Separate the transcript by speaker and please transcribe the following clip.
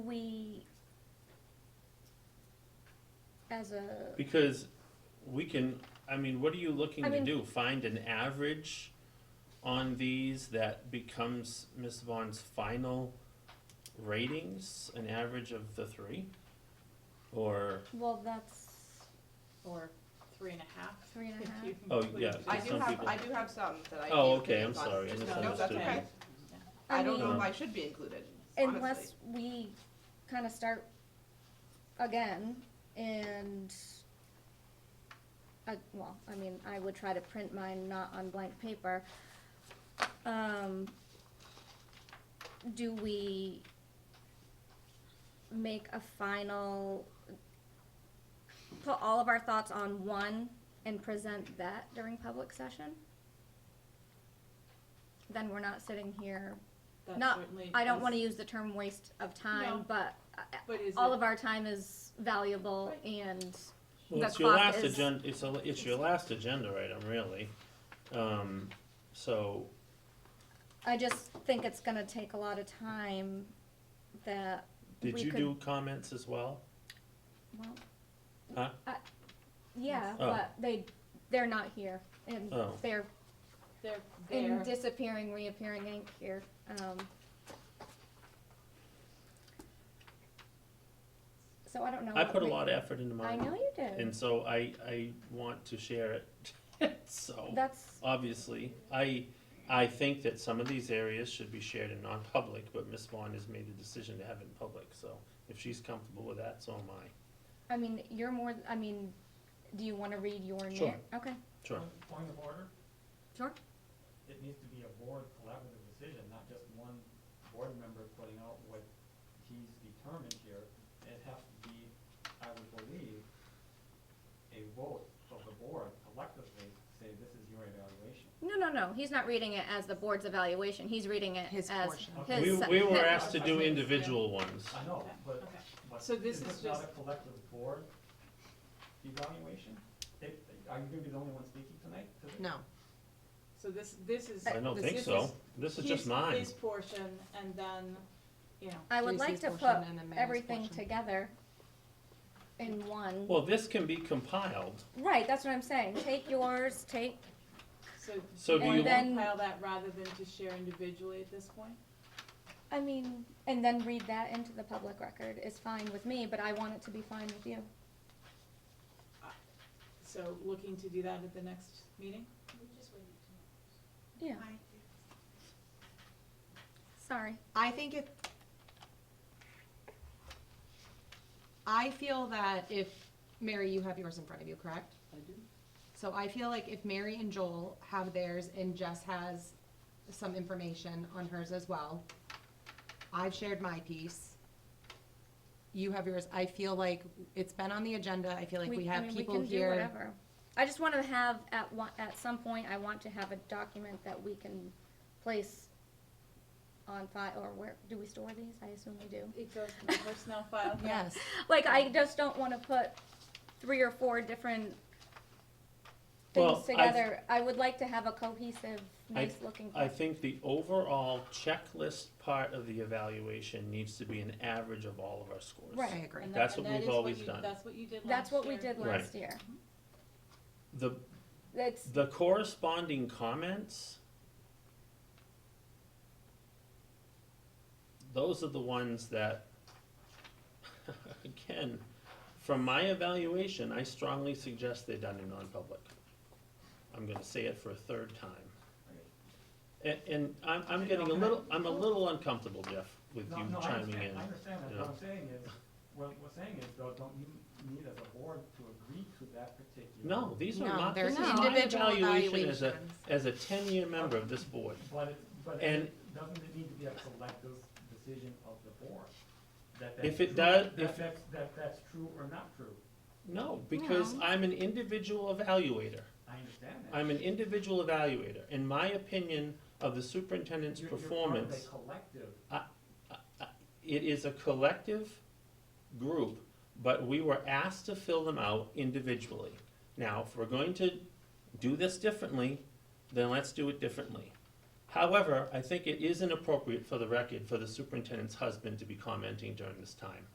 Speaker 1: we, as a,
Speaker 2: Because we can, I mean, what are you looking
Speaker 1: I
Speaker 2: to
Speaker 1: mean-
Speaker 2: do? Find an average on these that becomes Miss Vaughn's final ratings, an average of the three? Or,
Speaker 1: well, that's,
Speaker 3: Or three and a half.
Speaker 1: Three and a
Speaker 3: if
Speaker 1: half.
Speaker 3: you
Speaker 2: Oh,
Speaker 3: include
Speaker 2: yeah,
Speaker 3: the
Speaker 4: I
Speaker 2: Some
Speaker 4: do have,
Speaker 2: people-
Speaker 4: I do have some that I.
Speaker 2: Oh,
Speaker 4: gave
Speaker 2: okay, I'm
Speaker 4: opinions on.
Speaker 2: sorry, I
Speaker 4: No, that's
Speaker 2: misunderstood
Speaker 4: okay.
Speaker 1: I
Speaker 4: I don't know
Speaker 1: mean,
Speaker 4: if I should be included, honestly.
Speaker 1: unless we kinda start again and, I, well, I mean, I would try to print mine not on blank paper. Um, do we make a final, put all of our thoughts on one and present that during public session? Then we're not sitting here
Speaker 3: That
Speaker 1: Not-
Speaker 3: certainly
Speaker 1: I don't
Speaker 3: is-
Speaker 1: want to use the term waste of time,
Speaker 3: No.
Speaker 1: but uh,
Speaker 3: But is
Speaker 1: all
Speaker 3: it-
Speaker 1: of our time is valuable
Speaker 3: Right.
Speaker 1: and
Speaker 2: well,
Speaker 1: The
Speaker 2: it's your
Speaker 1: clock
Speaker 2: last
Speaker 1: is-
Speaker 2: agenda, it's a, it's your last agenda item, really. Um, so,
Speaker 1: I just think it's gonna take a lot of time that,
Speaker 2: did
Speaker 1: We
Speaker 2: you
Speaker 1: could-
Speaker 2: do comments as well?
Speaker 1: well.
Speaker 2: Huh?
Speaker 1: I- Yeah,
Speaker 2: Oh.
Speaker 1: but they, they're not here and
Speaker 2: Oh.
Speaker 1: they're
Speaker 3: They're
Speaker 1: in
Speaker 3: there.
Speaker 1: disappearing, reappearing ink here. Um, So I don't know.
Speaker 2: I
Speaker 1: what
Speaker 2: put a
Speaker 1: we-
Speaker 2: lot of effort into
Speaker 1: I
Speaker 2: mine.
Speaker 1: know you did.
Speaker 2: And so I, I want to share it, so.
Speaker 1: That's,
Speaker 2: obviously. I, I think that some of these areas should be shared in non-public, but Ms. Vaughn has made the decision to have it in public, so if she's comfortable with that, so am I.
Speaker 1: I mean, you're more, I mean, do you wanna read your name?
Speaker 2: Sure.
Speaker 1: Okay,
Speaker 2: Sure.
Speaker 5: Point of order,
Speaker 1: sure.
Speaker 5: it needs to be a board collaborative decision, not just one board member putting out what he's determined here. It has to be, I would believe, a vote of the board collectively, say this is your evaluation.
Speaker 1: No, no, no, he's not reading it as the board's evaluation, he's reading it
Speaker 6: His
Speaker 1: as
Speaker 6: portion.
Speaker 1: his.
Speaker 2: We, we were asked to
Speaker 5: I
Speaker 2: do
Speaker 5: think-
Speaker 2: individual ones.
Speaker 5: I know, but,
Speaker 3: Okay.
Speaker 5: but
Speaker 3: So this
Speaker 5: is
Speaker 3: is
Speaker 5: this not a
Speaker 3: just-
Speaker 5: collective board evaluation? It, are you gonna be the only one speaking tonight to this?
Speaker 6: No,
Speaker 3: So this, this is.
Speaker 2: I don't
Speaker 3: this-
Speaker 2: think
Speaker 3: this
Speaker 2: so.
Speaker 3: is
Speaker 2: This is just
Speaker 3: his-
Speaker 2: mine.
Speaker 3: His portion and then, you know,
Speaker 1: I would
Speaker 6: Tracy's
Speaker 1: like to
Speaker 6: portion
Speaker 1: put
Speaker 6: and the mayor's
Speaker 1: everything
Speaker 6: portion.
Speaker 1: together in one.
Speaker 2: Well, this can be compiled.
Speaker 1: Right, that's what I'm saying, take yours, take,
Speaker 3: so.
Speaker 2: So
Speaker 1: do you
Speaker 3: want
Speaker 1: want-
Speaker 3: to Compile that rather than to share individually at this point?
Speaker 1: I mean, and then read that into the public record is fine with me, but I want it to be fine with you.
Speaker 3: So looking to do that at the next meeting?
Speaker 1: Yeah,
Speaker 6: I,
Speaker 1: sorry.
Speaker 6: I think if, I feel that if, Mary, you have yours in front of you, correct?
Speaker 3: I do.
Speaker 6: So I feel like if Mary and Joel have theirs and Jess has some information on hers as well, I've shared my piece. You have yours. I feel like it's been on the agenda. I feel like we
Speaker 1: I
Speaker 6: have
Speaker 1: mean,
Speaker 6: people
Speaker 1: can do
Speaker 6: here.
Speaker 1: whatever. I just wanna have, at one, at some point, I want to have a document that we can place on file, or where, do we store these? I assume we do.
Speaker 3: It goes to the personnel file.
Speaker 6: Yes,
Speaker 1: Like, I just don't wanna put three or four different things
Speaker 2: Well, I-
Speaker 1: together. I would like to have a cohesive, nice looking.
Speaker 2: I think the overall checklist part of the evaluation needs to be an average of all of our scores.
Speaker 6: I
Speaker 1: Right.
Speaker 6: agree.
Speaker 3: And that-
Speaker 2: That's
Speaker 3: and
Speaker 2: what
Speaker 3: that
Speaker 2: we've
Speaker 3: is
Speaker 2: always
Speaker 3: you-
Speaker 2: done.
Speaker 3: That's what you did last year.
Speaker 1: That's what we did
Speaker 2: Right.
Speaker 1: last year.
Speaker 2: The,
Speaker 1: It's,
Speaker 2: the corresponding comments, those are the ones that, again, from my evaluation, I strongly suggest they're done in non-public. I'm gonna say it for a third time. And, and I'm, I'm getting a little, I'm a little uncomfortable, Jeff, with
Speaker 5: No,
Speaker 2: you
Speaker 5: no, I
Speaker 2: chiming
Speaker 5: understand-
Speaker 2: in.
Speaker 5: I understand,
Speaker 2: you
Speaker 5: that.
Speaker 2: know.
Speaker 5: what I'm saying is, what we're saying is, though, don't you need as a board to agree to that particular?
Speaker 2: No, these are
Speaker 6: No,
Speaker 2: not,
Speaker 6: they're
Speaker 2: this is my
Speaker 6: individual
Speaker 2: evaluation as a,
Speaker 6: evaluations.
Speaker 2: as a ten-year member of this board.
Speaker 5: But, it- but
Speaker 2: And-
Speaker 5: it doesn't it need to be a collective decision of the board? that
Speaker 2: If
Speaker 5: that's
Speaker 2: it does-
Speaker 5: true- That
Speaker 2: if-
Speaker 5: that's, that that's true or not true,
Speaker 2: No, because I'm an individual evaluator.
Speaker 5: I understand that.
Speaker 2: I'm an individual evaluator. In my opinion of the superintendent's
Speaker 5: You're- You're part of
Speaker 2: performance,
Speaker 5: a collective,
Speaker 2: it is a collective group, but we were asked to fill them out individually. Now, if we're going to do this differently, then let's do it differently. However, I think it is inappropriate for the record for the superintendent's husband to be commenting during this time.